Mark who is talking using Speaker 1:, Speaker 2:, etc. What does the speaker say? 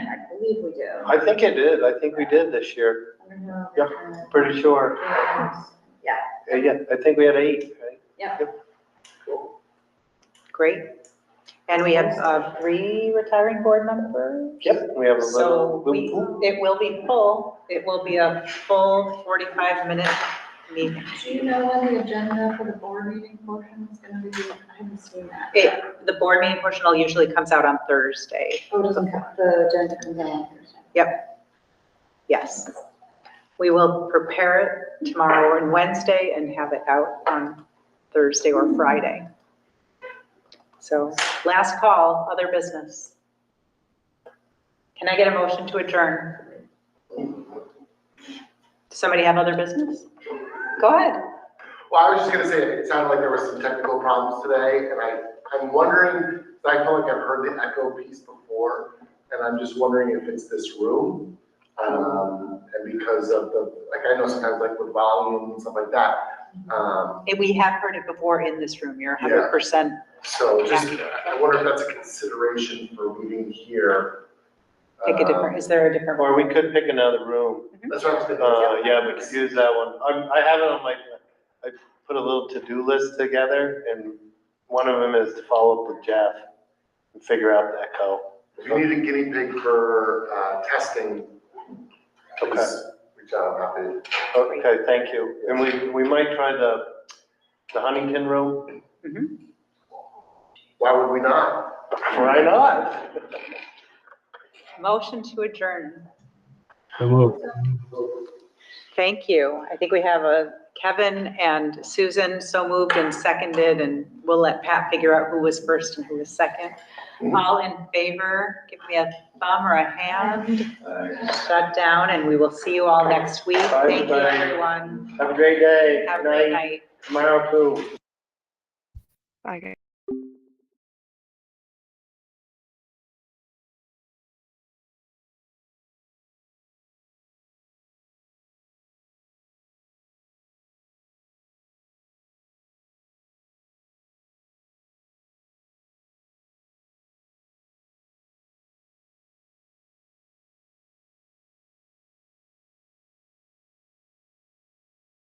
Speaker 1: believe we do.
Speaker 2: I think it is, I think we did this year, Yeah. pretty sure.
Speaker 1: Yeah.
Speaker 2: Uh, Yeah, I think we had eight, right?
Speaker 3: Great. And we have uh, three retiring board members.
Speaker 2: Yep, we have a
Speaker 3: So
Speaker 2: little.
Speaker 3: we, it will be full. It will be a full 45-minute meeting.
Speaker 1: Do you know when the agenda for the board meeting portion is gonna be? I haven't seen that.
Speaker 3: It, the board meeting portion all usually comes out on Thursday.
Speaker 1: Oh, it doesn't come, the agenda comes out on Thursday.
Speaker 3: Yes. We will prepare it tomorrow and Wednesday and have it out on Thursday or Friday. So last call, other business. Can I get a motion to adjourn? Does somebody have other business? Go ahead.
Speaker 4: Well, I was just gonna say, it sounded like there were some technical problems today, and I, I'm wondering, I feel like I've heard the echo piece before, and I'm just wondering if it's this room. Um, and because of the, like, I know sometimes like with volume and stuff like that, um,
Speaker 3: Eh, We have heard it before in this room. You're
Speaker 4: Yeah.
Speaker 3: 100%.
Speaker 4: so just, I wonder if that's a consideration for meeting here.
Speaker 3: Pick a
Speaker 4: Um,
Speaker 3: different, is there a different?
Speaker 2: Or we could pick another room.
Speaker 4: That's what I was thinking.
Speaker 2: Uh, yeah, we could use that one. I'm, I have it on my, I put a little to-do list together and one of them is to follow up with Jeff and figure out the echo.
Speaker 4: If you need a guinea pig for, uh, testing, please reach out, I'm happy.
Speaker 2: Okay, thank you. And we, we might try the, the Huntington room.
Speaker 4: Why would we not?
Speaker 2: Why not?
Speaker 3: Motion to adjourn.
Speaker 5: So moved.
Speaker 3: Thank you. I think we have a Kevin and Susan, so moved and seconded, and we'll let Pat figure out who was first and who was second. All in favor, give me a thumb or a hand. Shut down, and we will see you all next week.
Speaker 2: Bye,
Speaker 3: Thank you,
Speaker 2: bye.
Speaker 3: everyone.
Speaker 2: Have a great day.
Speaker 3: Have a
Speaker 2: Good
Speaker 3: great
Speaker 2: night.
Speaker 3: night.
Speaker 2: Tomorrow too.
Speaker 6: Bye, guys.